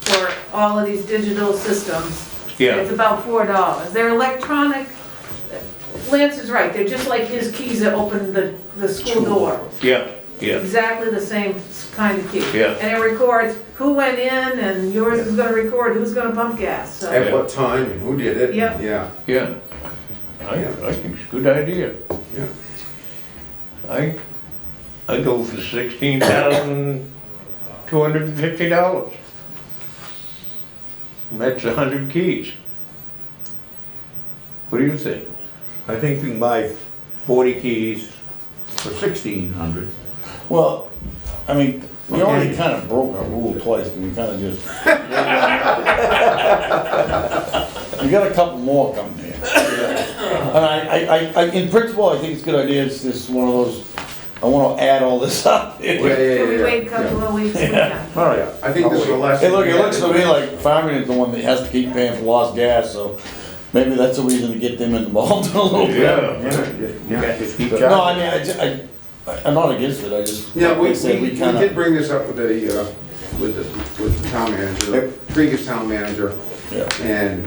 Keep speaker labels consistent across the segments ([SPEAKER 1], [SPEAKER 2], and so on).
[SPEAKER 1] for all of these digital systems. It's
[SPEAKER 2] Yeah,
[SPEAKER 1] about four dollars. They're electronic. Lance is right, they're just like his keys that open the, the school door.
[SPEAKER 2] yeah, yeah,
[SPEAKER 1] Exactly the same kind of key.
[SPEAKER 2] Yeah.
[SPEAKER 1] And it records who went in and yours is gonna record who's gonna pump gas, so.
[SPEAKER 3] At what time and who did it?
[SPEAKER 1] Yep.
[SPEAKER 3] Yeah,
[SPEAKER 2] yeah. I, I think it's a good idea.
[SPEAKER 3] yeah.
[SPEAKER 2] I, I go for sixteen thousand, two hundred and fifty dollars. And that's a hundred keys. What do you think?
[SPEAKER 4] I think you can buy forty keys for sixteen hundred.
[SPEAKER 5] Well, I mean, we already kind of broke our rule twice, and we kind of just. We got a couple more coming here. And I, I- I, I, in principle, I think it's a good idea, it's just one of those, I wanna add all this up. Hey,
[SPEAKER 3] yeah,
[SPEAKER 1] Can we wait a couple of weeks? Yeah.
[SPEAKER 4] Oh,
[SPEAKER 3] yeah. I think this is a lesson.
[SPEAKER 5] look, it looks to me like farming is the one that has to keep paying for lost gas, so maybe that's a reason to get them involved a little bit.
[SPEAKER 2] Oh, Yeah,
[SPEAKER 3] Yeah.
[SPEAKER 4] Just keep
[SPEAKER 5] No,
[SPEAKER 4] track.
[SPEAKER 5] I mean, I, ju- I, I'm not against it, I just.
[SPEAKER 3] Yeah, we,
[SPEAKER 5] like I said,
[SPEAKER 3] we, we
[SPEAKER 5] kinda-
[SPEAKER 3] did bring this up with the, uh, with the, with the town manager, previous town manager,
[SPEAKER 5] Yeah.
[SPEAKER 3] and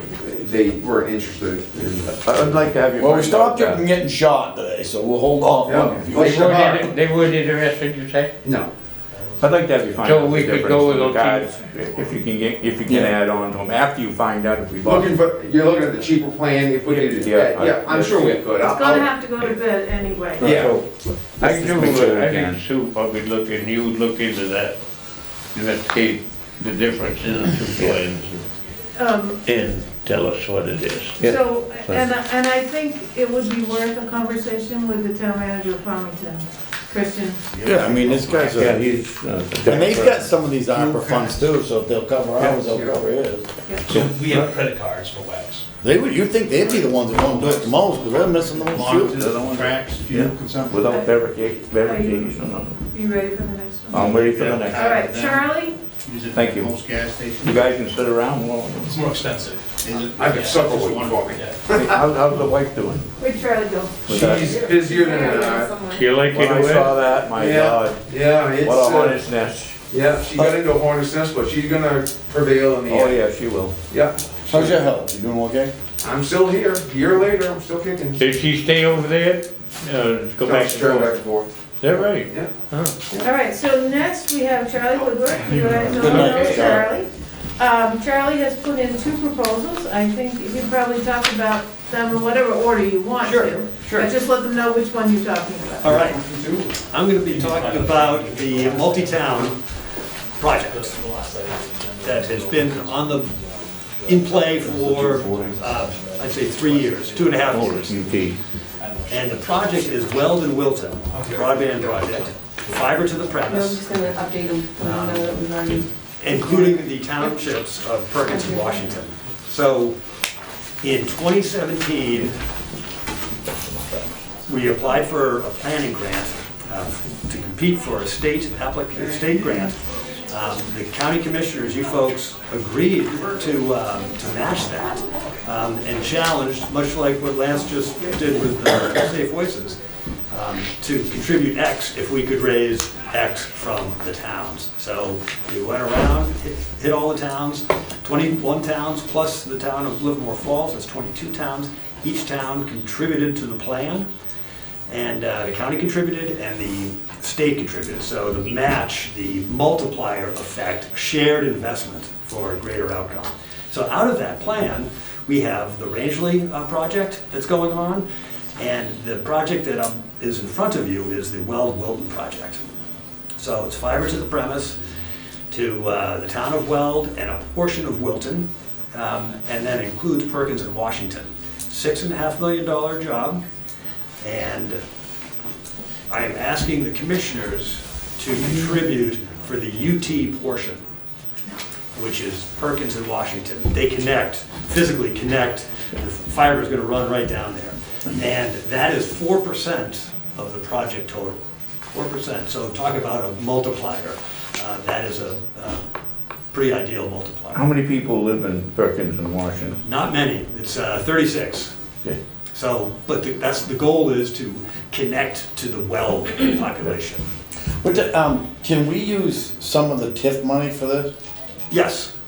[SPEAKER 3] they were interested in.
[SPEAKER 4] I- I'd like to have you.
[SPEAKER 5] Well, we
[SPEAKER 4] find
[SPEAKER 5] stopped
[SPEAKER 4] out
[SPEAKER 5] you from
[SPEAKER 4] that.
[SPEAKER 5] getting shot today, so we'll hold off.
[SPEAKER 3] Yeah.
[SPEAKER 5] on it.
[SPEAKER 3] Well,
[SPEAKER 2] They
[SPEAKER 3] sure.
[SPEAKER 2] weren't, inter- they weren't interested, you say?
[SPEAKER 3] No,
[SPEAKER 4] I'd like to have you find
[SPEAKER 2] So
[SPEAKER 4] out
[SPEAKER 2] we
[SPEAKER 4] the
[SPEAKER 2] could go
[SPEAKER 4] difference in the
[SPEAKER 2] with
[SPEAKER 4] cards, if you can get, if you can
[SPEAKER 5] Yeah.
[SPEAKER 4] add on to them, after you find out if we bought.
[SPEAKER 3] looking for, you're looking at the cheaper plan, if we did it, yeah,
[SPEAKER 4] Yeah,
[SPEAKER 3] yeah, I'm sure we could.
[SPEAKER 1] It's
[SPEAKER 3] I'll-
[SPEAKER 1] gonna have to go to bed anyway.
[SPEAKER 3] Yeah,
[SPEAKER 2] I
[SPEAKER 4] Let's
[SPEAKER 2] do,
[SPEAKER 4] just make sure we
[SPEAKER 2] uh, I
[SPEAKER 4] can.
[SPEAKER 2] think Sue probably look, and you would look into that, investigate the difference in the two plans,
[SPEAKER 1] Um,
[SPEAKER 2] and tell us what it is.
[SPEAKER 4] Yeah.
[SPEAKER 1] So, and, and I think it would be worth a conversation with the town manager of Farmington, Christian.
[SPEAKER 5] Yeah, I mean, this guy's
[SPEAKER 4] Yeah,
[SPEAKER 5] a,
[SPEAKER 4] he's. uh,
[SPEAKER 5] and they've got some of these opera funds too, so if they'll cover ours, they'll
[SPEAKER 3] Yeah.
[SPEAKER 5] cover his.
[SPEAKER 6] So we have credit cards for wax.
[SPEAKER 5] They would, you'd think they'd be the ones that won't do it the most, because they're missing the most shoes.
[SPEAKER 6] Launches, tracks, fuel
[SPEAKER 4] Yeah,
[SPEAKER 6] consumption.
[SPEAKER 4] without verification, verification, no.
[SPEAKER 1] You ready for the next one?
[SPEAKER 4] I'm ready for the next.
[SPEAKER 1] All right, Charlie?
[SPEAKER 6] Use it
[SPEAKER 4] Thank
[SPEAKER 6] at
[SPEAKER 4] you.
[SPEAKER 6] Most gas stations.
[SPEAKER 4] You guys can sit around, well,
[SPEAKER 6] It's more expensive. Is it-
[SPEAKER 3] I could
[SPEAKER 6] yeah,
[SPEAKER 3] supper
[SPEAKER 6] just
[SPEAKER 3] waiting
[SPEAKER 6] one-
[SPEAKER 3] for me.
[SPEAKER 6] yeah.
[SPEAKER 4] how's, how's the wife doing?
[SPEAKER 1] Where'd Charlie go?
[SPEAKER 3] she's busier than, uh,
[SPEAKER 2] Do you like it
[SPEAKER 4] When I saw that, my
[SPEAKER 3] yeah,
[SPEAKER 4] God,
[SPEAKER 3] yeah, it's,
[SPEAKER 4] what a
[SPEAKER 3] uh,
[SPEAKER 4] hornet's nest.
[SPEAKER 3] yeah, she got into a hornet's nest, but she's gonna prevail in the
[SPEAKER 4] Oh,
[SPEAKER 3] end,
[SPEAKER 4] yeah, she will.
[SPEAKER 3] yeah.
[SPEAKER 5] How's your health? You doing okay?
[SPEAKER 3] I'm still here, a year later, I'm still kicking.
[SPEAKER 2] Did she stay over there? Uh, go
[SPEAKER 3] No,
[SPEAKER 2] back
[SPEAKER 3] it's
[SPEAKER 2] and
[SPEAKER 3] turned
[SPEAKER 2] forth?
[SPEAKER 3] back and forth.
[SPEAKER 2] Is that right?
[SPEAKER 3] Yeah.
[SPEAKER 1] All right, so next we have Charlie Woodward. You guys all
[SPEAKER 5] Good night,
[SPEAKER 1] know Charlie.
[SPEAKER 5] Charlie.
[SPEAKER 1] Um, Charlie has put in two proposals. I think you can probably talk about them in whatever order you want to. Sure, sure. But just let them know which one you're talking about.
[SPEAKER 7] All right, I'm gonna be talking about the multi-town project that has been on the, in play for, uh, I'd say, three years, two and a half years.
[SPEAKER 4] Indeed.
[SPEAKER 7] And the project is Weldon Wilton broadband project, fiber to the
[SPEAKER 8] No, I'm
[SPEAKER 7] premise,
[SPEAKER 8] just gonna update them, let them know that we've already.
[SPEAKER 7] including the townships of Perkins and Washington. So in 2017, we applied for a planning grant uh, to compete for a state applicant, state grant. Um, The county commissioners, you folks, agreed to, um, to match that um, and challenged, much like what Lance just did with the Safe Voices, um, to contribute X if we could raise X from the towns. So we went around, hit- hit all the towns, 21 towns plus the town of Livermore Falls, that's 22 towns. Each town contributed to the plan. And uh, the county contributed and the state contributed. So the match, the multiplier effect, shared investment for a greater outcome. So out of that plan, we have the Rangeley uh, project that's going on, and the project that um, is in front of you is the Weld Wilton project. So it's fiber to the premise, to uh, the town of Weld and a portion of Wilton, um, and then includes Perkins and Washington. Six and a half million dollar job, and I am asking the commissioners to contribute for the UT portion, which is Perkins and Washington. They connect, physically connect, the fiber is going to run right down there. And that is 4% of the project total, 4%. So talk about a multiplier. Uh, That is a uh, pretty ideal
[SPEAKER 4] How
[SPEAKER 7] multiplier.
[SPEAKER 4] many people live in Perkins and Washington?
[SPEAKER 7] Not many, it's uh, 36.
[SPEAKER 4] Yeah.
[SPEAKER 7] So, but the- that's, the goal is to connect to the well population.
[SPEAKER 5] But, um, can we use some of the TIF money for this?
[SPEAKER 7] Yes,